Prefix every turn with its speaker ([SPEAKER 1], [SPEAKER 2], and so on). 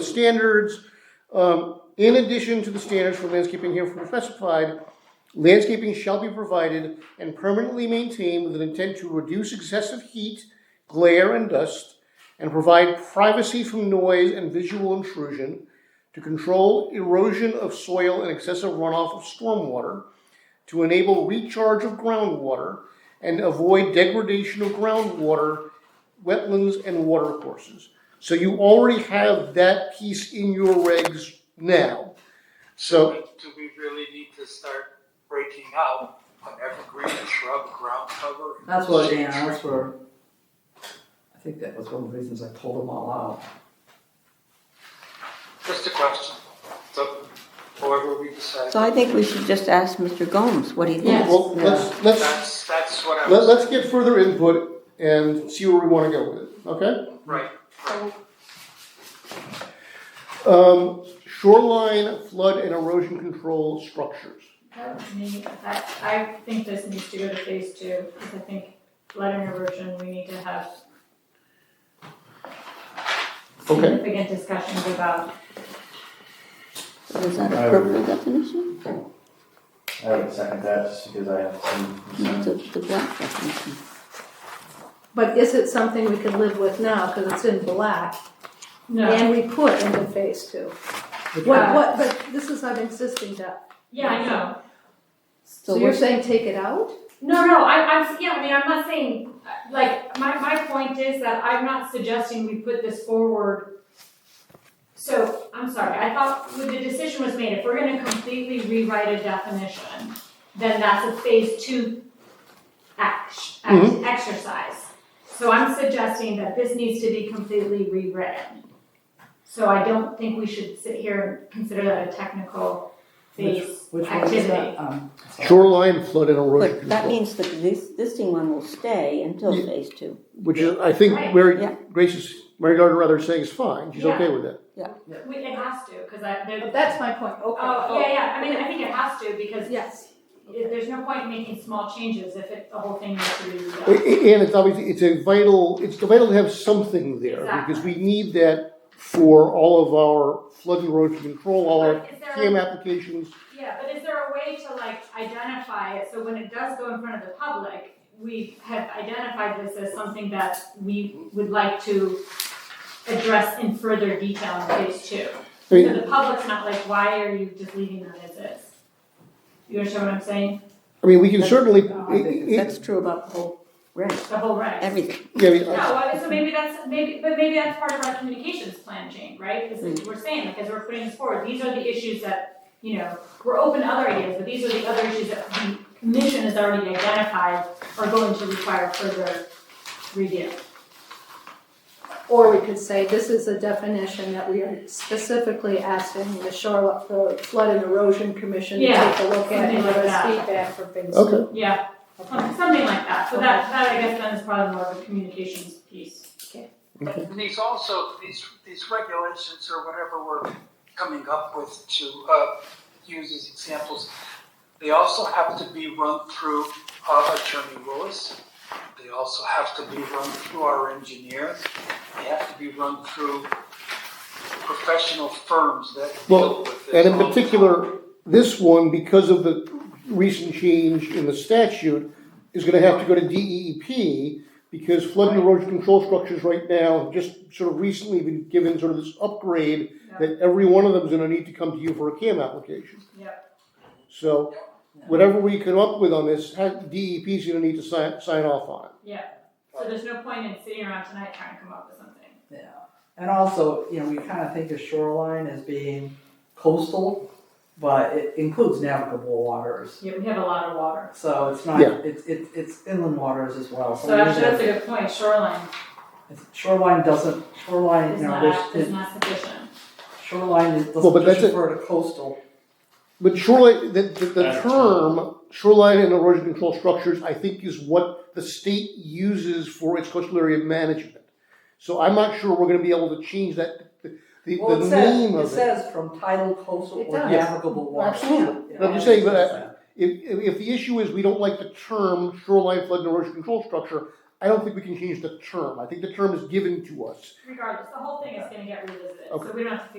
[SPEAKER 1] The standards, um, in addition to the standards for landscaping herefore specified, landscaping shall be provided and permanently maintained with an intent to reduce excessive heat, glare, and dust, and provide privacy from noise and visual intrusion, to control erosion of soil and excessive runoff of stormwater, to enable recharge of groundwater, and avoid degradation of groundwater, wetlands, and watercourses. So you already have that piece in your regs now. So,
[SPEAKER 2] Do we really need to start breaking out an evergreen, a shrub, a ground cover?
[SPEAKER 3] That's what, yeah, that's where, I think that was one of the reasons I pulled them all out.
[SPEAKER 2] Just a question, so however we decide.
[SPEAKER 4] So I think we should just ask Mr. Gomes what he thinks.
[SPEAKER 1] well, let's, let's,
[SPEAKER 2] That's, that's what I
[SPEAKER 1] let-
[SPEAKER 2] was,
[SPEAKER 1] let's get further input and see where we wanna go with it, okay?
[SPEAKER 2] right, right.
[SPEAKER 1] Um, shoreline flood and erosion control structures.
[SPEAKER 5] That was me. I, I think this needs to go to phase two, because I think flood and erosion, we need to have
[SPEAKER 1] Okay.
[SPEAKER 5] significant discussions about.
[SPEAKER 4] Is that a purple definition?
[SPEAKER 6] I would second that just because I have some
[SPEAKER 4] It's
[SPEAKER 6] concerns.
[SPEAKER 4] a- the black definition.
[SPEAKER 7] But is it something we can live with now, because it's in black, and we put into phase two? What,
[SPEAKER 5] Yeah.
[SPEAKER 7] what, but this is an existing debt,
[SPEAKER 5] Yeah, I know.
[SPEAKER 7] so
[SPEAKER 4] So
[SPEAKER 7] you're
[SPEAKER 4] we're,
[SPEAKER 7] saying take it out?
[SPEAKER 5] No, no, I, I'm, yeah, I mean, I'm not saying, uh, like, my, my point is that I'm not suggesting we put this forward. So, I'm sorry, I thought when the decision was made, if we're gonna completely rewrite a definition, then that's a phase two act, act,
[SPEAKER 3] Mm-hmm.
[SPEAKER 1] Mhm.
[SPEAKER 5] exercise. So I'm suggesting that this needs to be completely rewritten. So I don't think we should sit here and consider that a technical phase
[SPEAKER 3] Which one is
[SPEAKER 5] activity.
[SPEAKER 3] that? Um,
[SPEAKER 1] Shoreline flood and erosion
[SPEAKER 4] but
[SPEAKER 1] control.
[SPEAKER 4] that means the existing one will stay until
[SPEAKER 1] Yeah.
[SPEAKER 4] phase two.
[SPEAKER 1] Which is, I think,
[SPEAKER 5] Right.
[SPEAKER 1] Mary,
[SPEAKER 4] Yeah.
[SPEAKER 1] Grace is, Mary Gardner rather is saying is fine, she's
[SPEAKER 5] Yeah.
[SPEAKER 1] okay with it.
[SPEAKER 5] We, it has to, cause I, there,
[SPEAKER 7] That's my point, okay.
[SPEAKER 5] Oh, yeah, yeah, I mean, I think it has to, because
[SPEAKER 7] Yes,
[SPEAKER 5] it- there's no point in making small changes if it, the whole thing needs to be
[SPEAKER 1] A-
[SPEAKER 5] redone.
[SPEAKER 1] a- And it's obviously, it's a vital, it's vital to have something there, because we need that for all of our flood and erosion control, all our
[SPEAKER 5] Is there-
[SPEAKER 1] CAM applications.
[SPEAKER 5] Yeah, but is there a way to like identify it, so when it does go in front of the public, we have identified this as something that we would like to address in further detail in phase two?
[SPEAKER 1] I
[SPEAKER 5] So
[SPEAKER 1] mean,
[SPEAKER 5] the public's not like, why are you just leaving that as is? You understand what I'm saying?
[SPEAKER 1] I mean, we can certainly,
[SPEAKER 3] No, I think
[SPEAKER 1] i- i-
[SPEAKER 4] That's true about the whole reg,
[SPEAKER 5] The whole reg?
[SPEAKER 4] everything.
[SPEAKER 1] yeah, I mean,
[SPEAKER 5] No, I- so maybe that's, maybe, but maybe that's part of our communications plan, Jane, right? Is that we're saying, like, as we're putting this forward, these are the issues that, you know, we're open to other ideas, but these are the other issues that the commission has already identified are going to require further review.
[SPEAKER 7] or we could say this is a definition that we are specifically asking the shore, the flood and erosion commission to
[SPEAKER 5] Yeah,
[SPEAKER 7] take a look at
[SPEAKER 5] something
[SPEAKER 7] and give
[SPEAKER 5] like
[SPEAKER 7] us
[SPEAKER 5] that.
[SPEAKER 7] feedback for phase two.
[SPEAKER 1] okay,
[SPEAKER 5] Yeah, um, something like that, so that, that I guess then is probably more of a communications piece.
[SPEAKER 2] But these also, these, these regulations or whatever we're coming up with to, uh, use as examples, they also have to be run through, uh, Attorney Lewis. They also have to be run through our engineers. They have to be run through professional firms that deal
[SPEAKER 1] Well,
[SPEAKER 2] with this.
[SPEAKER 1] and in
[SPEAKER 2] all the time.
[SPEAKER 1] particular, this one, because of the recent change in the statute, is gonna have to go to DEEP, because flood and erosion control structures right now, have just sort of recently been given sort of this upgrade, that every one of them is gonna need to come to you for a CAM application.
[SPEAKER 5] Yep.
[SPEAKER 1] So, whatever we come up with on this, DEP is gonna need to sign, sign off on it.
[SPEAKER 5] So there's no point in sitting around tonight trying to come up with something.
[SPEAKER 3] yeah. And also, you know, we kind of think of shoreline as being coastal, but it includes navigable waters.
[SPEAKER 5] Yeah, we have a lot of water.
[SPEAKER 3] So it's not,
[SPEAKER 1] Yeah.
[SPEAKER 3] it's, it's, it's inland waters as well.
[SPEAKER 5] So
[SPEAKER 3] we need
[SPEAKER 5] actually, that's
[SPEAKER 3] to-
[SPEAKER 5] a good point, shoreline
[SPEAKER 3] Shoreline doesn't, shoreline,
[SPEAKER 5] is
[SPEAKER 3] you know,
[SPEAKER 5] not,
[SPEAKER 3] there's-
[SPEAKER 5] is not sufficient.
[SPEAKER 3] shoreline is-
[SPEAKER 1] Well, but
[SPEAKER 3] doesn't
[SPEAKER 1] that's
[SPEAKER 3] just
[SPEAKER 1] a-
[SPEAKER 3] refer to coastal.
[SPEAKER 1] But shoreline, the, the, the
[SPEAKER 6] That's-
[SPEAKER 1] term shoreline and erosion control structures, I think is what the state uses for its coastal area management. So I'm not sure we're gonna be able to change that, the, the
[SPEAKER 3] Well, it
[SPEAKER 1] the
[SPEAKER 3] says,
[SPEAKER 1] name
[SPEAKER 3] it
[SPEAKER 1] of it.
[SPEAKER 3] says from tidal coastal
[SPEAKER 7] It
[SPEAKER 3] or
[SPEAKER 7] does.
[SPEAKER 3] navigable waters.
[SPEAKER 1] Absolutely.
[SPEAKER 3] Yeah.
[SPEAKER 1] I'm just saying, but I- If, if, if the issue is we don't like the term shoreline flood and erosion control structure, I don't think we can change the term. I think the term is given to us.
[SPEAKER 5] regardless, the whole thing is gonna get revisited, so we don't have to figure